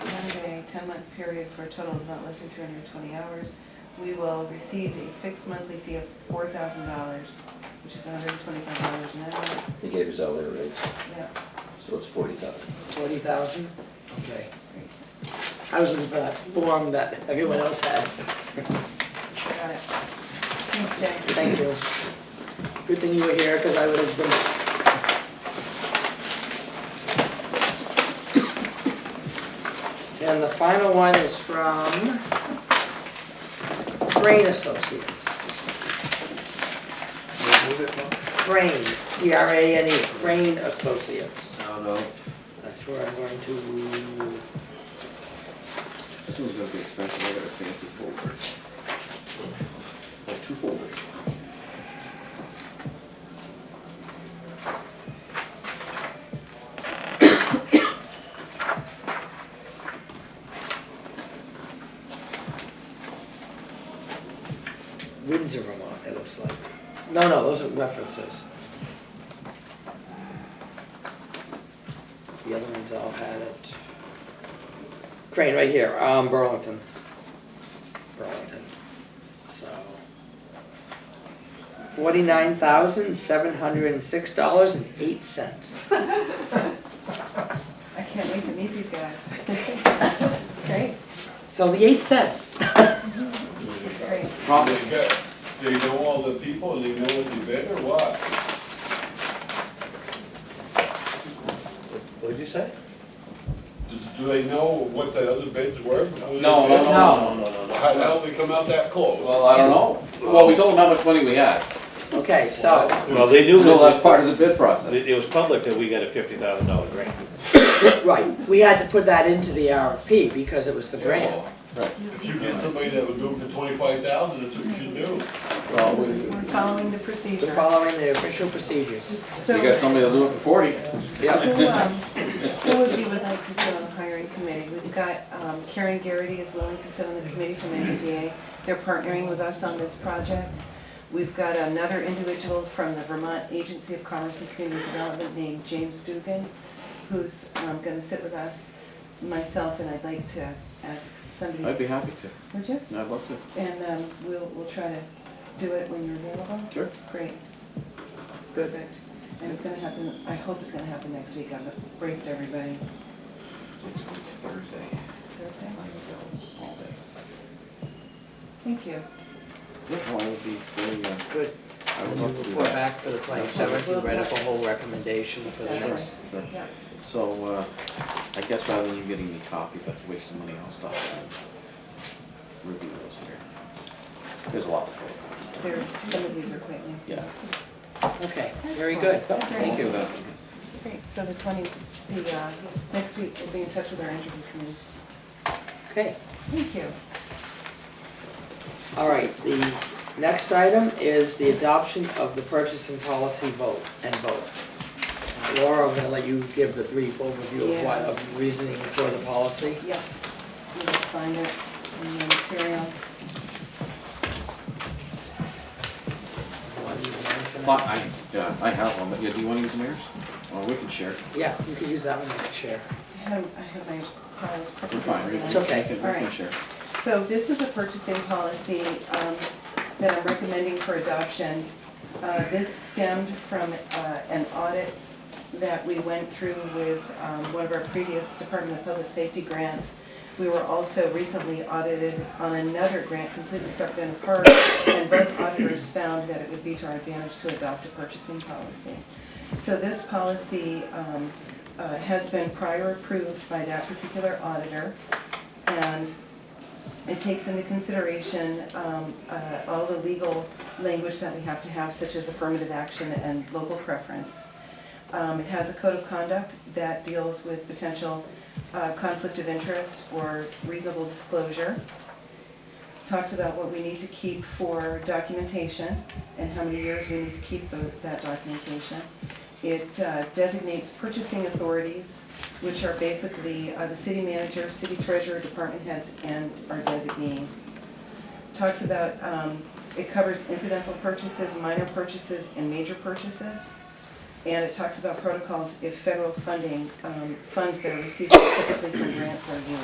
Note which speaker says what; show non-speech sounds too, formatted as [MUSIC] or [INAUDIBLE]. Speaker 1: ten-month period for a total of not less than two hundred and twenty hours, we will receive a fixed monthly fee of four thousand dollars, which is hundred and twenty-five dollars an hour.
Speaker 2: They gave us hourly rates,
Speaker 1: Yeah,
Speaker 2: so it's forty thousand.
Speaker 3: Forty thousand? Okay.
Speaker 1: great.
Speaker 3: I was looking for that form that everyone else had.
Speaker 1: Got it. Thanks, Jay.
Speaker 3: Thank you. Good thing you were here, because I would have been, and the final one is from Crane Associates.
Speaker 4: Move it, Mark?
Speaker 3: Crane, C-R-A-N-E, E, Crane Associates.
Speaker 4: I don't know.
Speaker 3: That's where I'm going to,
Speaker 4: This one's gonna be expensive, I got a fancy folder. Like two folders.
Speaker 3: Windsor, Vermont, it looks like. No, no, those are references. The other ones all had it. Crane, right here, um, Burlington. Burlington, so. Forty-nine thousand, seven hundred and six dollars and eight cents.
Speaker 1: I can't wait to meet these guys. [LAUGHS] Great,
Speaker 3: So the eight cents.
Speaker 1: that's great.
Speaker 4: Probably,
Speaker 5: They got, they know all the people, and they know what they bid or what?
Speaker 6: What'd you say?
Speaker 5: Do- Do they know what the other bids were? before they
Speaker 6: No, no,
Speaker 5: bid?
Speaker 6: no, no, no,
Speaker 5: How the
Speaker 6: no.
Speaker 5: hell they come out that close?
Speaker 6: Well, I don't know. Well, we told them how much money we had.
Speaker 3: Okay, so,
Speaker 6: Well, they knew.
Speaker 2: No, that's part of the bid
Speaker 6: It,
Speaker 2: process.
Speaker 6: it was public that we got a fifty thousand dollar grant.
Speaker 3: right, we had to put that into the RFP because it was the grant.
Speaker 5: If you get somebody that would do it for twenty-five thousand, that's what you should do.
Speaker 2: Well, we,
Speaker 1: We're
Speaker 2: you
Speaker 1: following the
Speaker 3: We're
Speaker 1: procedure.
Speaker 3: following the official procedures.
Speaker 1: So,
Speaker 2: got somebody that'll do it for forty?
Speaker 3: Yep.
Speaker 1: who, um, who would we would like to sit on the hiring committee? We've got um, Karen Garrity is willing to sit on the committee from NEDA. They're partnering with us on this project. We've got another individual from the Vermont Agency of Commerce and Community Development named James Dugan, who's going to sit with us, myself, and I'd like to ask
Speaker 2: I'd
Speaker 1: somebody,
Speaker 2: be happy to.
Speaker 1: would you?
Speaker 2: I'd love to.
Speaker 1: And um, we'll, we'll try to do it when you're available.
Speaker 2: Sure.
Speaker 1: Great.
Speaker 3: Good.
Speaker 1: Perfect. And it's gonna happen, I hope it's gonna happen next week. I've braced everybody.
Speaker 4: Next week, Thursday,
Speaker 1: Thursday?
Speaker 4: I'm available all day.
Speaker 1: Thank you.
Speaker 4: Yeah, well, I would be very, uh,
Speaker 3: Good.
Speaker 4: I would
Speaker 3: And
Speaker 4: love
Speaker 3: you
Speaker 4: to do
Speaker 3: report
Speaker 4: that.
Speaker 3: back for the twenty-seventh, you write up a whole recommendation for the
Speaker 1: Exactly.
Speaker 3: next.
Speaker 4: Sure.
Speaker 1: Yeah.
Speaker 4: So, uh, I guess rather than you getting me copies, that's a waste of money, I'll stop and review those here. There's a lot to fill.
Speaker 1: There's, some of these are quite new.
Speaker 4: Yeah.
Speaker 3: Okay, very good.
Speaker 1: Excellent.
Speaker 3: Thank you.
Speaker 1: Great, so the twenty, the, uh, next week, we'll be in touch with our interview committee.
Speaker 3: Okay,
Speaker 1: Thank you.
Speaker 3: all right, the next item is the adoption of the purchasing policy vote and vote. Laura, I'm gonna let you give the brief overview of what,
Speaker 1: Yes.
Speaker 3: of reasoning for the policy.
Speaker 1: Yep, you just find it in the material.
Speaker 2: But I, yeah, I have one, but yeah, do you want to use mirrors? Well, we can share.
Speaker 3: Yeah, you could use that one to share.
Speaker 1: I have, I have my files.
Speaker 2: We're fine. We can-
Speaker 3: It's okay.
Speaker 2: we can- We
Speaker 1: All
Speaker 2: can
Speaker 1: right.
Speaker 2: share.
Speaker 1: So this is a purchasing policy um, that I'm recommending for adoption. Uh, This stemmed from uh, an audit that we went through with um, one of our previous Department of Public Safety grants. We were also recently audited on another grant completely separate and apart, and both auditors found that it would be to our advantage to adopt a purchasing policy. So this policy um, uh, has been prior approved by that particular auditor, and it takes into consideration um, uh, all the legal language that we have to have, such as affirmative action and local preference. Um, It has a code of conduct that deals with potential uh, conflict of interest or reasonable disclosure. Talks about what we need to keep for documentation and how many years we need to keep tho- that documentation. It uh, designates purchasing authorities, which are basically uh, the city manager, city treasurer, department heads, and our designees. Talks about, um, it covers incidental purchases, minor purchases, and major purchases. And it talks about protocols if federal funding, um, funds that are received specifically from grants are used.